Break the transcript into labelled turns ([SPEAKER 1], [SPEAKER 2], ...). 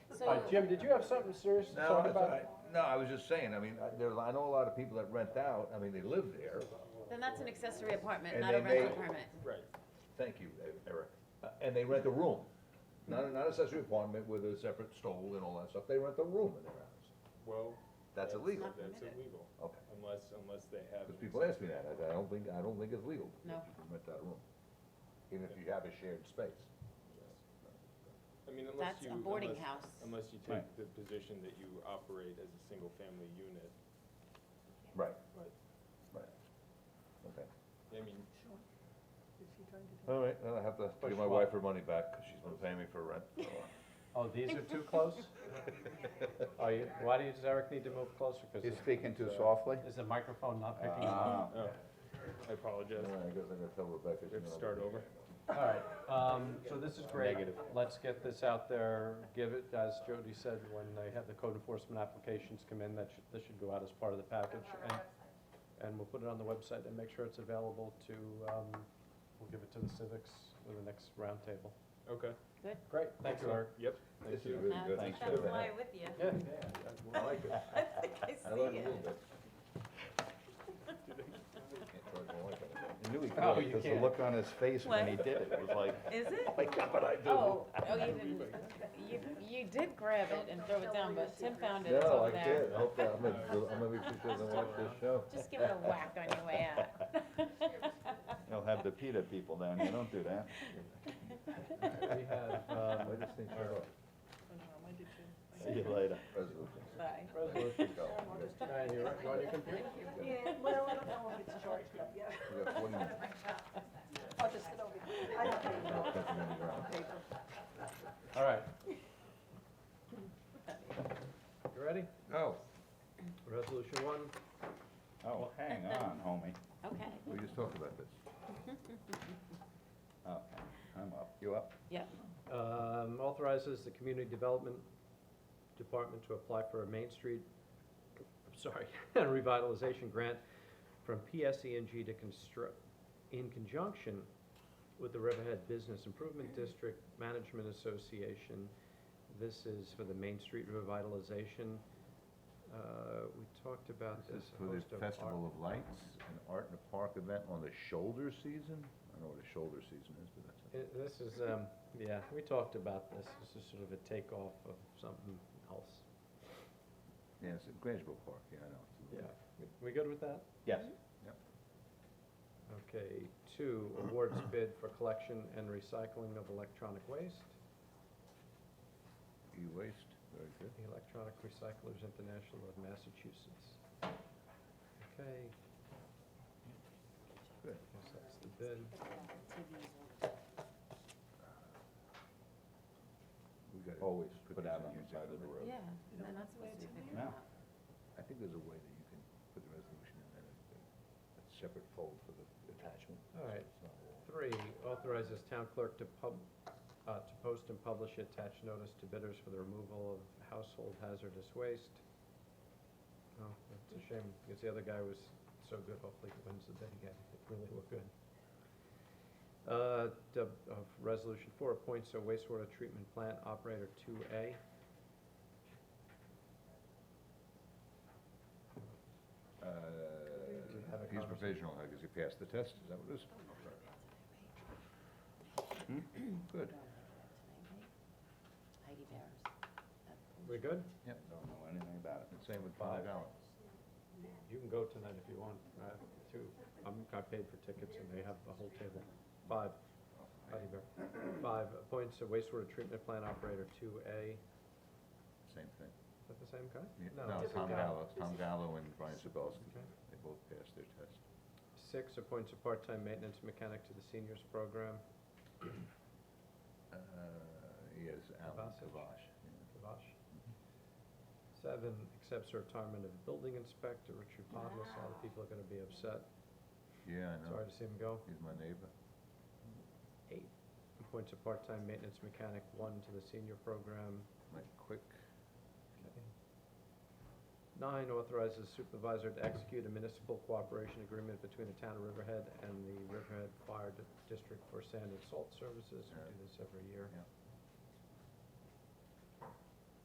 [SPEAKER 1] Uh, Jim, did you have something serious to
[SPEAKER 2] No,
[SPEAKER 1] talk
[SPEAKER 2] that's,
[SPEAKER 1] about?
[SPEAKER 2] I, no, I was just saying, I mean, I- there's, I know a lot of people that rent out, I mean, they live there,
[SPEAKER 3] Then that's an accessory apartment,
[SPEAKER 2] And
[SPEAKER 3] not a
[SPEAKER 2] they
[SPEAKER 3] rental
[SPEAKER 2] may-
[SPEAKER 3] permit.
[SPEAKER 2] thank you, Eric, Uh, and they rent a room. Not, not accessory apartment with a separate stove and all that stuff, they rent a room in their house.
[SPEAKER 4] Well,
[SPEAKER 2] That's illegal,
[SPEAKER 3] Not
[SPEAKER 4] that's
[SPEAKER 3] permitted.
[SPEAKER 4] illegal,
[SPEAKER 2] okay,
[SPEAKER 4] unless, unless they have.
[SPEAKER 2] because people ask me that, I, I don't think, I don't think it's legal.
[SPEAKER 3] No.
[SPEAKER 2] that You can rent that room, even if you have a shared space.
[SPEAKER 4] I mean, unless
[SPEAKER 3] That's
[SPEAKER 4] you.
[SPEAKER 3] a boarding
[SPEAKER 4] unless-
[SPEAKER 3] house.
[SPEAKER 4] Unless you take the position that you operate as a single-family unit,
[SPEAKER 2] Right.
[SPEAKER 4] Right.
[SPEAKER 2] Right. Okay.
[SPEAKER 4] I mean,
[SPEAKER 2] All right, then I have to
[SPEAKER 1] Push
[SPEAKER 2] give my
[SPEAKER 1] what?
[SPEAKER 2] wife her money back, because she's been paying me for rent. so-
[SPEAKER 1] Oh, these are too close? Are you, why do you, does Eric need to move closer? Cause
[SPEAKER 5] You're
[SPEAKER 1] is-
[SPEAKER 5] speaking too softly?
[SPEAKER 1] is the microphone not picking up?
[SPEAKER 5] Ah,
[SPEAKER 4] oh, I apologize,
[SPEAKER 2] All right, I guess I'm gonna tell Rebecca.
[SPEAKER 4] we have to start over.
[SPEAKER 1] All right, um, Ah. so this is great. Let's get this out there, give it, as Jody said, when they have the code enforcement applications come in, that should, this should go out as part of the package. and- And we'll put it on the website and make sure it's available to, um, we'll give it to the civics for the next roundtable.
[SPEAKER 4] Okay,
[SPEAKER 1] Great, thank you, Eric.
[SPEAKER 4] yep,
[SPEAKER 2] This is
[SPEAKER 4] thank you.
[SPEAKER 2] really good.
[SPEAKER 1] Thanks
[SPEAKER 2] Thank you.
[SPEAKER 3] with you.
[SPEAKER 1] Yeah.
[SPEAKER 2] I like it.
[SPEAKER 3] I think I
[SPEAKER 2] I
[SPEAKER 3] see
[SPEAKER 2] like it a little
[SPEAKER 3] it.
[SPEAKER 2] bit. Can't charge my wife anything.
[SPEAKER 5] I knew he
[SPEAKER 1] Oh,
[SPEAKER 5] could,
[SPEAKER 1] you
[SPEAKER 5] because the
[SPEAKER 1] can't.
[SPEAKER 5] look on his face when he did it was like,
[SPEAKER 3] Is it?
[SPEAKER 5] my God, I do.
[SPEAKER 3] Oh, oh, you didn't, you, you did grab it and throw it down, but Tim found it, it's
[SPEAKER 2] No,
[SPEAKER 3] over
[SPEAKER 2] I
[SPEAKER 3] there.
[SPEAKER 2] did, I hope that, I'm gonna, I'm gonna be sure to watch this show.
[SPEAKER 3] Just give it a whack on your way out.
[SPEAKER 5] They'll have the PETA people down here, don't do that.
[SPEAKER 1] We have, um,
[SPEAKER 2] I just think, sure,
[SPEAKER 5] See you later.
[SPEAKER 2] resolution.
[SPEAKER 3] Bye.
[SPEAKER 2] Resolution. Go.
[SPEAKER 1] Diane, you're right, you're on your computer?
[SPEAKER 6] Yeah, well, I don't know if it's charged up yet.
[SPEAKER 2] We got 40 minutes.
[SPEAKER 6] I'll just sit over here. I have paper.
[SPEAKER 2] I'll cut them in the ground.
[SPEAKER 1] All right. You ready?
[SPEAKER 2] Oh,
[SPEAKER 1] Resolution one,
[SPEAKER 5] Oh, hang on, homie.
[SPEAKER 3] Okay,
[SPEAKER 2] we just talked about this.
[SPEAKER 5] Okay, I'm up. You up?
[SPEAKER 3] yep,
[SPEAKER 1] um, authorizes the Community Development Department to apply for a Main Street, I'm sorry, revitalization grant from PSENG to construct, in conjunction with the Riverhead Business Improvement District Management Association. This is for the Main Street revitalization. Uh, we talked about
[SPEAKER 2] This
[SPEAKER 1] this.
[SPEAKER 2] is for the
[SPEAKER 1] host of
[SPEAKER 2] Festival of Lights, an art in the park event on the shoulder season. I don't know what a shoulder season is, but that's it.
[SPEAKER 1] Uh, This is, um, yeah, we talked about this, this is sort of a takeoff of something else.
[SPEAKER 2] Yeah, it's in Grangeville Park, yeah, I know. It's a little-
[SPEAKER 1] We good with that?
[SPEAKER 5] Yes.
[SPEAKER 1] Okay, two, awards bid for collection and recycling of electronic waste.
[SPEAKER 2] E-waste, very good.
[SPEAKER 1] The Electronic Recyclers International of Massachusetts. Okay.
[SPEAKER 2] Good.
[SPEAKER 1] Guess that's the bid.
[SPEAKER 2] We gotta
[SPEAKER 5] Always
[SPEAKER 2] put
[SPEAKER 5] put
[SPEAKER 2] these
[SPEAKER 5] out
[SPEAKER 2] in
[SPEAKER 5] on
[SPEAKER 2] here
[SPEAKER 5] the side of the
[SPEAKER 2] separately.
[SPEAKER 5] road.
[SPEAKER 3] yeah, and that's what we figured
[SPEAKER 5] No.
[SPEAKER 3] out.
[SPEAKER 2] I think there's a way that you can put the resolution in and a- a separate fold for the attachment.
[SPEAKER 1] All right.
[SPEAKER 2] It's not all-
[SPEAKER 1] Three, authorizes town clerk to pub, uh, to post and publish attached notice to bidders for the removal of household hazardous waste. Oh, that's a shame, because the other guy was so good, hopefully he wins the bid again, it really looked good. Uh, dub, uh, resolution four appoints a wastewater treatment plant operator two A. you have a
[SPEAKER 2] Uh, he's
[SPEAKER 1] conversation?
[SPEAKER 2] provisional, I guess he passed the test, is that what it is? Good.
[SPEAKER 3] Heidi Bear's.
[SPEAKER 1] We good?
[SPEAKER 2] Yep.
[SPEAKER 5] Don't know anything about it.
[SPEAKER 2] And same with
[SPEAKER 1] Five.
[SPEAKER 2] Five Allen.
[SPEAKER 1] You can go tonight if you want, uh, two, I'm, I paid for tickets and they have the whole table. Five, Patty Bear. Five, appoints a wastewater treatment plant operator two A, is
[SPEAKER 2] Same thing.
[SPEAKER 1] that the same guy?
[SPEAKER 2] Yeah, No, Tom Gallo, Tom Gallo and Brian Sebelski,
[SPEAKER 1] Okay.
[SPEAKER 2] they both passed their test.
[SPEAKER 1] Six, appoints a part-time maintenance mechanic to the seniors program,
[SPEAKER 2] Uh, yes, Alan
[SPEAKER 1] Kovacic.
[SPEAKER 2] Kovash. yeah.
[SPEAKER 1] Kavash. Seven, accepts the retirement of building inspector Richard Podless, a lot of people are gonna be upset,
[SPEAKER 2] Yeah, I know,
[SPEAKER 1] sorry to see him go.
[SPEAKER 2] he's my neighbor.
[SPEAKER 1] Eight, appoints a part-time maintenance mechanic one to the senior program,
[SPEAKER 2] Mike Quick,
[SPEAKER 1] Nine, authorizes supervisor to execute a municipal cooperation agreement between the town of Riverhead and the Riverhead Fire Di- District for sand and salt services. We do this every year.
[SPEAKER 2] Yeah.